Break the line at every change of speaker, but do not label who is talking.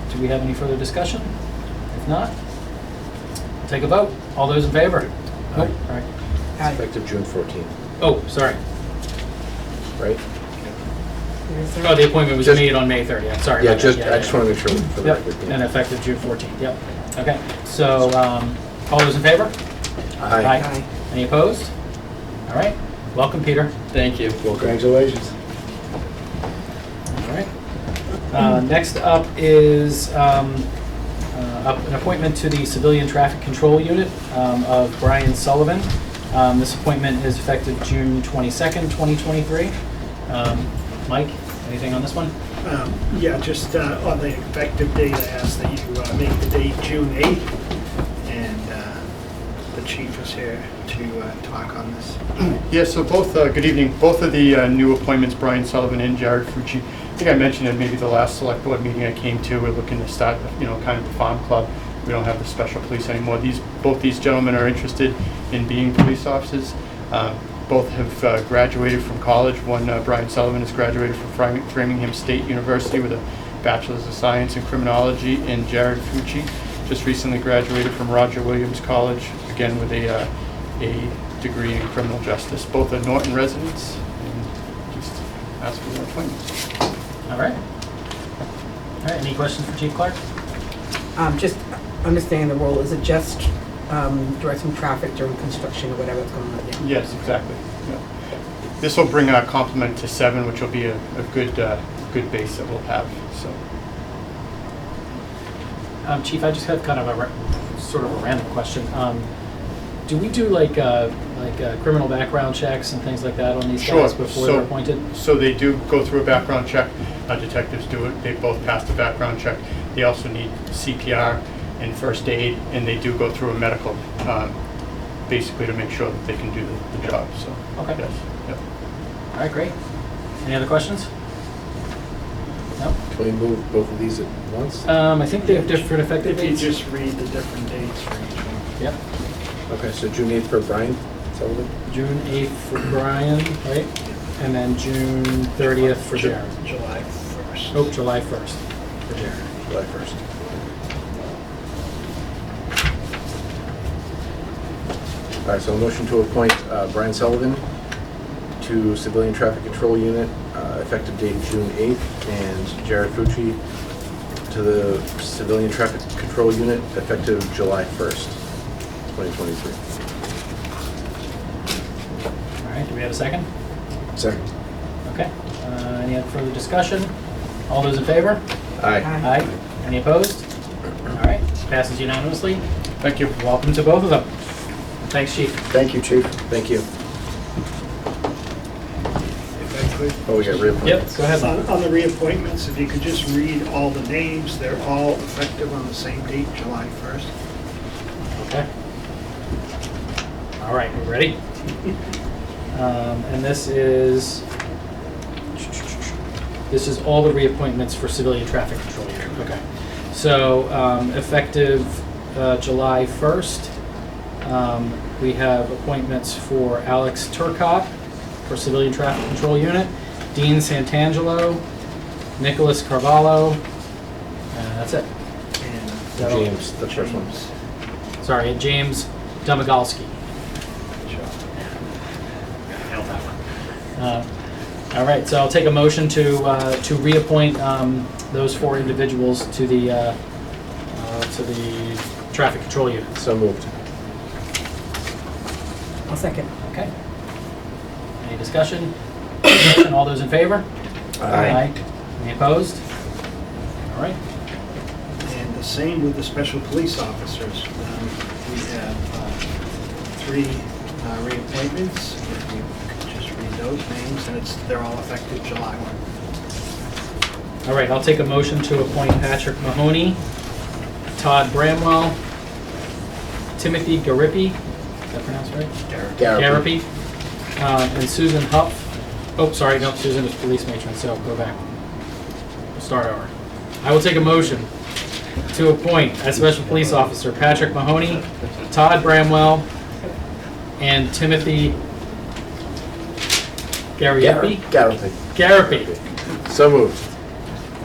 Do we have any further discussion? If not, take a vote. All those in favor? Nope. All right.
Effective June 14th,
Oh, sorry.
right?
Oh, the appointment was
Just-
made on May 30th. Sorry.
Yeah,
about that.
just, I just
yeah.
want to make sure. for the
Yep,
record.
and effective June 14th, yep. Okay, so, um, all those in favor?
Aye.
Aye.
Any opposed? All right, welcome, Peter.
Thank you.
Congratulations.
All right. Uh, Next up is um, uh, up- an appointment to the Civilian Traffic Control Unit um, of Brian Sullivan. Um, This appointment is effective June 22nd, 2023. Um, Mike, anything on this one?
Um, Yeah, just uh, on the effective date, I ask that you uh, make the date June 8th, and uh, the chief is here to uh, talk on this.
Yes, so both, uh, good evening. Both of the uh, new appointments, Brian Sullivan and Jared Fucci, I think I mentioned at maybe the last select board meeting I came to, we're looking to start, you know, kind of a farm club. We don't have the special police anymore. These, both these gentlemen are interested in being police officers. Uh, Both have uh, graduated from college. One, uh, Brian Sullivan, has graduated from Fram- Framingham State University with a Bachelor's of Science in Criminology, and Jared Fucci just recently graduated from Roger Williams College, again with a uh, a degree in criminal justice. Both are Norton residents, and just ask for their appointments.
All right. All right, any questions for Chief Clark?
Um, just understanding the role, is it just, um, directing traffic during construction or whatever's going on? yeah?
Yes, exactly. Yeah. This will bring our complement to seven, which will be a, a good, uh, good base that we'll have, so.
Um, Chief, I just have kind of a ra- sort of a random question. Um, do we do like uh, like uh, criminal background checks and things like that on these
Sure,
guys before
so-
they're appointed?
So they do go through a background check. Our detectives do it. They both pass the background check. They also need CPR and first aid, and they do go through a medical, um, basically to make sure that they can do the, the job, so.
Okay.
yes, yep.
All right, great. Any other questions? No.
Can we move both of these at once?
Um, I think they have different effective
If you
dates.
just read the different dates for each one.
Yep.
Okay, so June 8th for Brian Sullivan?
June eighth for Brian, right? And then June thirtieth for
Ju-
Jared.
July 1st.
Oh, July first for Jared.
July 1st. All right, so a motion to appoint uh, Brian Sullivan to Civilian Traffic Control Unit, uh, effective date June 8th, and Jared Fucci to the Civilian Traffic Control Unit, effective July 1st, 2023.
All right. Do we have a second?
Second.
Okay. Uh, any other further discussion? All those in favor?
Aye.
Aye. Any opposed? All right, passes unanimously.
Thank you.
Welcome to both of them. Thanks, Chief.
Thank you, Chief. Thank you.
If I could.
Oh, we got reappointments.
Yep, go ahead.
On
Bob.
on the reappointments, if you could just read all the names, they're all effective on the same date, July 1st.
Okay. All right, we're ready. Um, And this is, this is all the reappointments for civilian traffic control here. Okay. So um, effective uh, July 1st, um, we have appointments for Alex Turcotte for civilian traffic control unit, Dean Santangelo, Nicholas Carvalho, and that's it.
And
So-
James, the first one.
Sorry, and James Domagalski. Uh, All right, so I'll take a motion to, uh, to reappoint um, those four individuals to the, uh, uh, to the traffic control unit.
So moved.
I'll second.
Okay? Any discussion? Discussion, All those in favor? Any opposed? All right,
And the same with the special police officers. Um, We have uh, three uh, reappointments, if you could just read those names, and it's, they're all effective July 1.
all right, I'll take a motion to appoint Patrick Mahoney, Todd Bramwell, Timothy Garippi, is that pronounced right?
Garapi.
Garapi, uh, and Susan Huff. Oh, sorry, no, Susan is police matron, so go back. Start over. I will take a motion to appoint as special police officer Patrick Mahoney, Todd Bramwell, and Timothy Gariepi?
Garapi.
Garapi.
So moved.